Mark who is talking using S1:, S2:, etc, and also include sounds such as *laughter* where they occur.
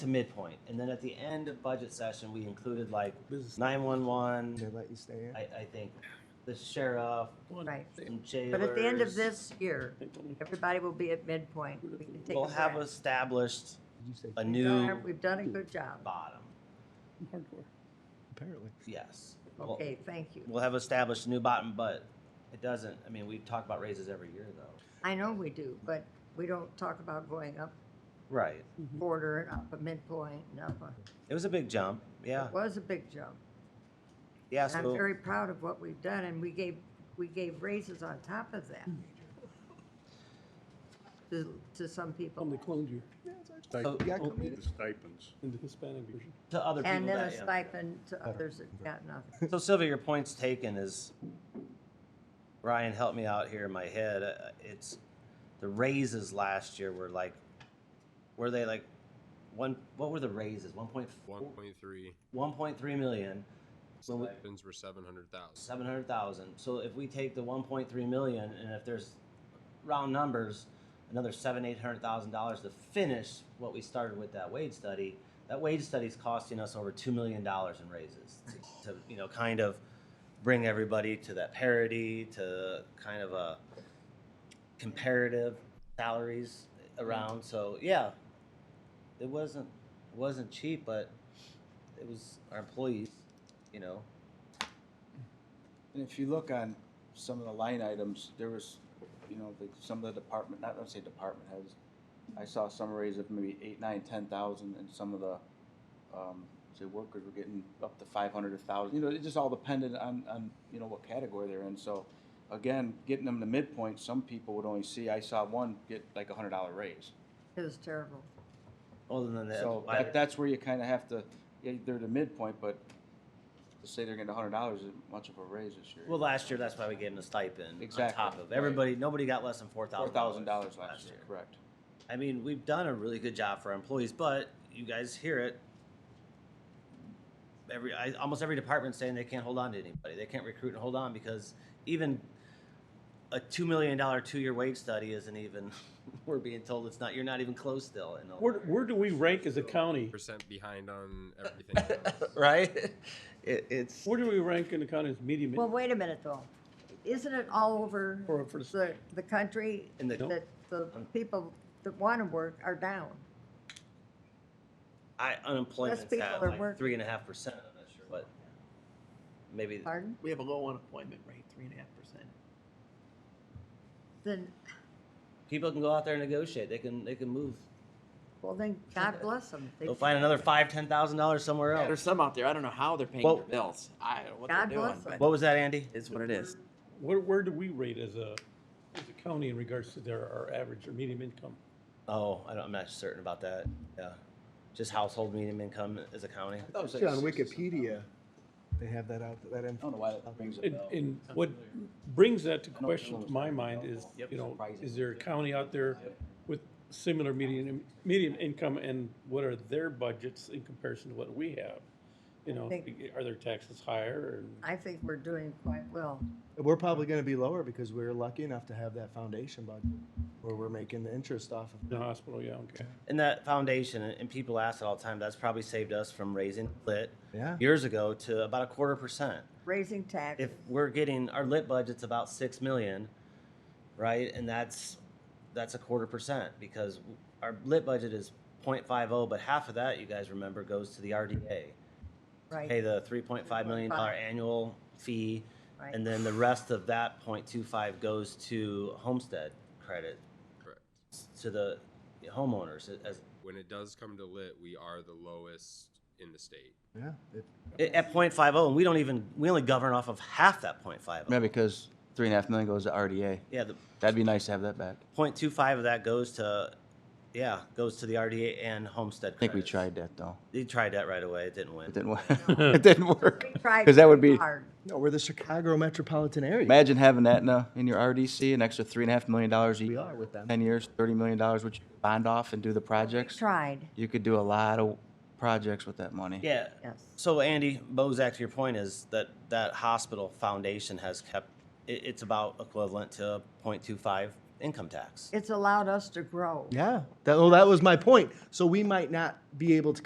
S1: to midpoint. And then at the end of budget session, we included like
S2: Business. They
S1: 911,
S2: let you stay in.
S1: I, I think, the sheriff,
S3: Right.
S1: some jailers.
S3: But at the end of this year, everybody will be at midpoint. We can take
S1: We'll have
S3: breath.
S1: established
S2: You say
S1: a
S3: Darn,
S1: new
S3: We've done a good job.
S1: bottom,
S4: Hardcore.
S2: apparently.
S1: yes. We'll-
S3: Okay, thank you.
S1: We'll have established a new bottom, but it doesn't, I mean, we talk about raises every year though.
S3: I know we do, but we don't talk about going up
S1: Right.
S3: border and up a midpoint and up a.
S1: It was a big jump, yeah,
S3: It was a big jump.
S1: yeah,
S3: I'm
S1: so.
S3: very proud of what we've done and we gave, we gave raises on top of
S1: Mm.
S3: that. To, to some
S4: On
S3: people
S4: the cloned year,
S1: So-
S2: You gotta
S1: oh,
S2: come in.
S5: The stipends.
S4: in the Hispanic version.
S1: To other people
S3: and then a
S1: that, yeah.
S3: stipend to others that got
S1: *laughs*
S3: nothing.
S1: So Sylvia, your point's taken is, Ryan, help me out here in my head. Uh, It's, the raises last year were like, were they like, one, what were the raises? One point
S6: One
S1: four,
S6: point three
S1: one point three million, So we-
S6: stipends were seven hundred thousand.
S1: seven hundred thousand. So if we take the one point three million and if there's round numbers, another seven, eight hundred thousand dollars to finish what we started with that wage study, that wage study's costing us over two million dollars in raises to, to, you know, kind of bring everybody to that parity, to kind of a comparative salaries around. So yeah, it wasn't it wasn't cheap, but it was our employees, you know.
S7: And if you look on some of the line items, there was, you know, like some of the department, not, let's say department heads, I saw summaries of maybe eight, nine, ten thousand, and some of the, um, say workers were getting up to five hundred, a thousand, you know, it just all depended on, on, you know, what category they're in, so. Again, getting them to midpoint, some people would only see, I saw one get like a hundred dollar raise.
S3: It was terrible.
S1: Other than that,
S7: So
S1: I-
S7: that, that's where you kinda have to, yeah, they're the midpoint, but to say they're getting a hundred dollars isn't much of a raise this year.
S1: well, last year that's why we gave them the stipend on
S7: Exactly,
S1: top of
S7: right.
S1: everybody. Nobody got less than four
S7: Four
S1: thousand
S7: thousand dollars last year, correct.
S1: I mean, we've done a really good job for our employees, but you guys hear it. Every I, almost every department saying they can't hold on to anybody. They can't recruit and hold on because even a two million dollar two year wage study isn't even. *laughs* We're being told it's not. You're not even close still. In
S4: Where, where do we rank as a county?
S6: Percent behind on everything
S1: *laughs*
S6: else.
S1: right? It, it's
S4: Where do we rank in the county as medium?
S3: Well, wait a minute though. Isn't it all over
S4: For- for-
S3: the, the country
S1: In the-
S3: that the people that want to work are down?
S1: I
S3: Less
S1: unemployment's
S3: people
S1: at
S3: are
S1: like
S3: working.
S1: three and a half percent. I'm not sure, but maybe
S3: Pardon?
S8: We have a low unemployment rate, three and a half percent.
S3: Then,
S1: people can go out there and negotiate. They can they can move.
S3: well then,
S1: *laughs*
S3: God bless them.
S1: They'll find another five ten thousand dollars somewhere
S8: There's
S1: else.
S8: some out there. I don't know how they're paying
S1: Well-
S8: their bills. I don't know what
S3: God
S8: they're doing,
S3: bless 'em.
S8: but
S1: What was that, Andy?
S8: it's what it is.
S4: Where, where do we rate as a, as a county in regards to their, our average or medium income?
S1: Oh, I don't, I'm not certain about that. Yeah, just household medium income as a county.
S7: That was like Oh.
S2: See, on
S7: six or something.
S2: Wikipedia, they have that out, that
S7: I don't
S2: info.
S7: know why that brings a
S4: And,
S7: bell.
S4: and what brings that to
S7: know
S4: question
S7: what
S4: to my
S7: it's
S4: mind
S7: about.
S4: is,
S7: Yep.
S4: you know,
S7: Surprising.
S4: is there a county out there with similar median, median income and what are their budgets in comparison to what we have? You know,
S3: think-
S4: are their taxes higher or?
S3: I think we're doing quite well.
S2: We're probably gonna be lower because we were lucky enough to have that foundation budget where we're making the interest off of.
S4: The hospital, yeah, okay.
S1: And that foundation, and people ask it all the time. That's probably saved us from raising lit
S2: Yeah.
S1: years ago to about a quarter percent.
S3: Raising tax,
S1: if we're getting our lit budget's about six million, right? And that's that's a quarter percent because our lit budget is 0.50, but half of that you guys remember goes to the RDA. Pay
S3: right?
S1: the 3.5 million dollar annual fee,
S3: Right.
S1: and then the rest of that 0.25 goes to homestead credit
S6: Correct.
S1: to the homeowners. As
S6: When it does come to lit, we are the lowest in the state.
S2: Yeah. it-
S1: at 0.50, and we don't even we only govern off of half that 0.50.
S7: Yeah, because three and a half million goes to RDA.
S1: Yeah, the
S7: That'd be nice to have that back.
S1: 0.25 of that goes to, yeah, goes to the RDA and homestead.
S7: I think we
S1: credits.
S7: tried that though.
S1: They tried that right away. It didn't win.
S7: It didn't *laughs* work. it didn't work.
S3: We tried
S7: Because that would
S3: too
S7: be,
S3: hard.
S2: No, we're the Chicago metropolitan area.
S7: imagine having that in, a, in your RDC, an extra three and a half million dollars a
S2: We
S7: year.
S2: are with them.
S7: Ten years, thirty million dollars, which you bond off and do the projects.
S3: Tried,
S7: You could do a lot of projects with that money.
S1: Yeah.
S3: yes.
S1: So Andy Bozak, to your point is that that hospital foundation has kept. It, it's about equivalent to 0.25 income tax.
S3: It's allowed us to grow.
S2: Yeah. That, well, that was my point. So we might not be able to